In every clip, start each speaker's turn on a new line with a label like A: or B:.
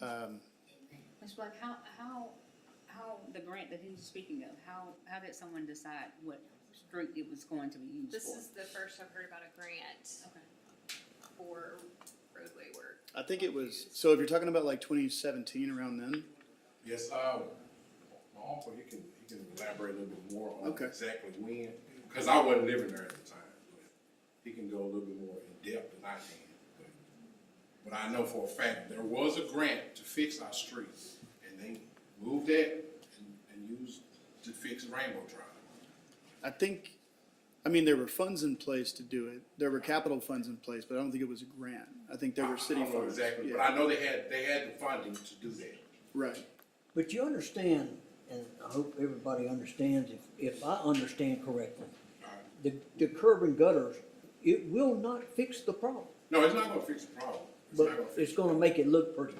A: Um,
B: Ms. Black, how, how, how, the grant that he was speaking of, how, how did someone decide what street it was going to be used for?
C: This is the first I've heard about a grant
B: Okay.
C: for roadway work.
A: I think it was, so if you're talking about like twenty seventeen around then,
D: Yes, uh, my uncle, he can, he can elaborate a little bit more on
A: Okay.
D: exactly when, cause I wasn't living there at the time. but He can go a little bit more in depth than I can, but, but I know for a fact, there was a grant to fix our streets, and they moved that and, and used to fix Rainbow Drive.
A: I think, I mean, there were funds in place to do it. There were capital funds in place, but I don't think it was a grant. I think there
D: I-
A: were city
D: I don't know
A: funds.
D: exactly, but
A: Yeah.
D: I know they had, they had the funding to do that.
A: Right.
E: But you understand, and I hope everybody understands, if, if I understand correctly, the, the curb and gutters, it will not fix the problem,
D: No, it's not gonna fix the problem. It's not
E: but
D: fix
E: it's
D: the
E: gonna
D: problem.
E: make it look pretty.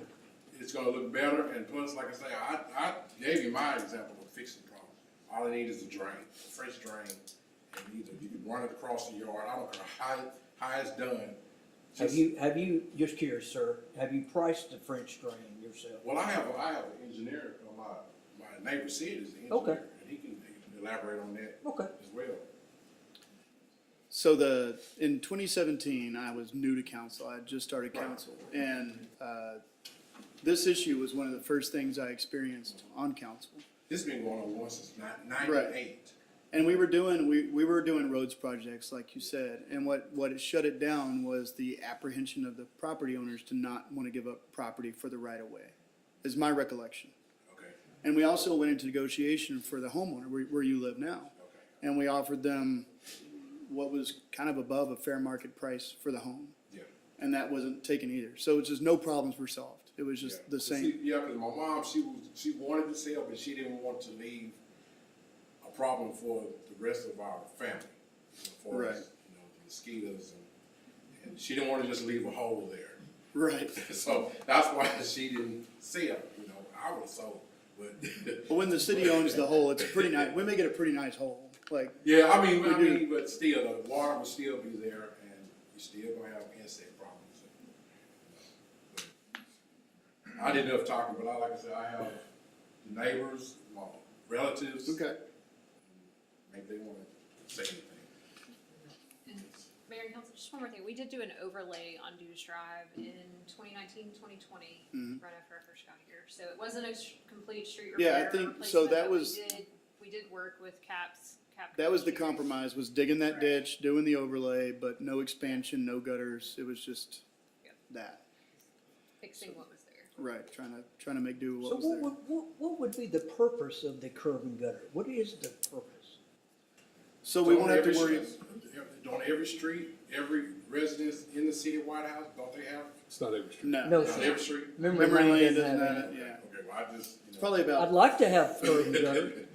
D: it's gonna look better, and plus, like I say, I, I gave you my example of fixing the problem. All I need is a drain, a fresh drain, and either you can run it across the yard, I don't care how, how it's done.
E: Have
D: Just,
E: you, have you, just curious, sir, have you priced the French drain yourself?
D: well, I have, I have an engineer, uh, my, my neighbor Sid is the
E: Okay.
D: engineer, and he can he can elaborate on that
E: Okay.
D: as well.
A: So the, in twenty seventeen, I was new to council. I had just started council. And, uh, this issue was one of the first things I experienced on council.
D: This has been going on once since nine-
A: Right.
D: ninety-eight.
A: And we were doing, we, we were doing roads projects, like you said, and what, what it shut it down was the apprehension of the property owners to not want to give up property for the right of way, is my recollection.
D: Okay,
A: And we also went into negotiation for the homeowner, where, where you live now.
D: okay,
A: And we offered them what was kind of above a fair market price for the home,
D: yeah.
A: and that wasn't taken either. So it's just no problems were solved. It was
D: Yeah.
A: just the
D: But see-
A: same.
D: Yeah, because my mom, she was, she wanted to sell, but she didn't want to leave a problem for the rest of our family. you know, For
A: Right.
D: us, you know, the mosquitoes and, and she didn't want to just leave a hole there.
A: Right.
D: So that's why she didn't sell, you know, I would have sold, but.
A: But when the city owns the whole, it's a pretty nice, we make it a pretty nice hole, like,
D: Yeah, I mean, I
A: We do.
D: mean, but still, the water will still be there and you still gonna have insect problems. I did enough talking, but I, like I said, I have neighbors, my relatives.
A: okay.
D: Maybe they wanna say anything.
C: Mayor and Council, just one more thing. We did do an overlay on Dews Drive in 2019, 2020, right after I first got here. So it wasn't a s- complete street
A: Mm-hmm. Yeah, I
C: repair. or
A: think- so
C: replacement,
A: that
C: but we
A: was-
C: did- We did work with CAPS, CAP.
A: That was the
C: Communications.
A: compromise, was digging that
C: Right.
A: ditch, doing the overlay, but no expansion, no gutters. It was just
C: Yep.
A: that,
C: Fixing what was there.
A: right, trying to, trying to make do with
E: So
A: what
E: what
A: was there.
E: would, what, what would be the purpose of the curb and gutter? What is the purpose?
A: So we won't
D: Don't
A: have to
D: every
A: worry,
D: street- Don't every street, every residence in the city of White House, don't they have,
F: It's not every street.
A: no.
E: No,
D: not
E: sir.
D: every street?
A: Memory lane doesn't have it, yeah.
D: Okay, well, I just, you know.
A: It's probably
E: I'd
A: about,
E: like to have curb and gutter.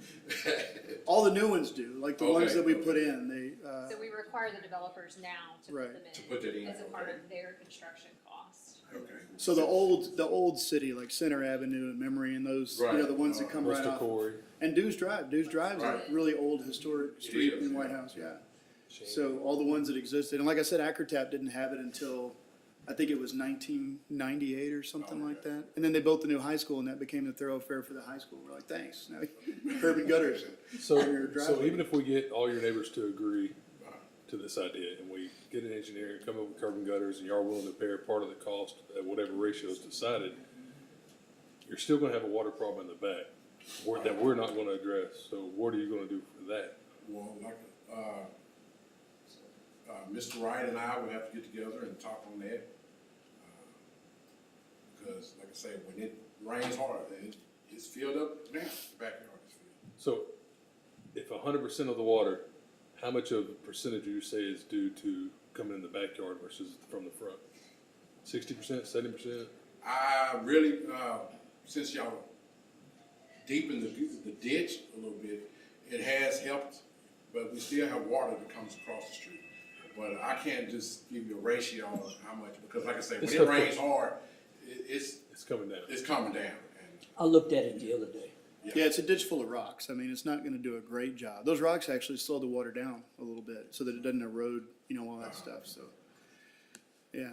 A: all the new ones do, like the ones
D: Okay,
A: that we
D: okay.
A: put in, they, uh,
C: So we require the developers now to
A: Right.
C: put them in.
D: To put that in,
C: As a part
D: okay.
C: of their construction cost.
D: Okay.
A: so the old, the old city, like Center Avenue and Memory and those, you know,
D: Right. Uh,
A: the ones that come right
F: Mr.
A: off.
F: Corey.
A: And Dews Drive, Dews Drive's a
D: Right.
A: really old historic street
D: is,
A: in White
D: yeah.
A: House, yeah. So all the ones that existed, and like I said, Acrotap didn't have it until, I think it was nineteen ninety-eight or
D: Oh,
A: something like that. And then they built the new high school and that became the thoroughfare for the high school. We're like, thanks, now curb and gutters.
F: So,
A: Your
F: so
A: driveway.
F: even if we get all your neighbors to agree uh, to this idea and we get an engineer, come up with curb and gutters and you are willing to bear part of the cost at whatever ratio is decided, you're still gonna have a water problem in the back or that we're not gonna address. So what are you gonna do for that?
D: Well, like, uh, uh, Mr. Wright and I would have to get together and talk on that. uh, Because like I say, when it rains hard, it, it's filled up now, the backyard is filled.
F: So if hundred percent of the water, how much of a percentage do you say is due to coming in the backyard versus from the front? Sixty percent, seventy percent?
D: I really, uh, since y'all deepened the, the ditch a little bit, it has helped, but we still have water that comes across the street. But I can't just give you a ratio on how much, because like I say, when
F: It's
D: it
F: tough.
D: rains hard, it, it's,
F: It's coming down.
D: it's coming down. And
E: I looked at it the other day.
A: Yeah, it's a ditch full of rocks. I mean, it's not gonna do a great job. Those rocks actually slow the
D: Uh-huh.
A: water down a little bit so that it doesn't erode, you know, all that stuff, so. Yeah,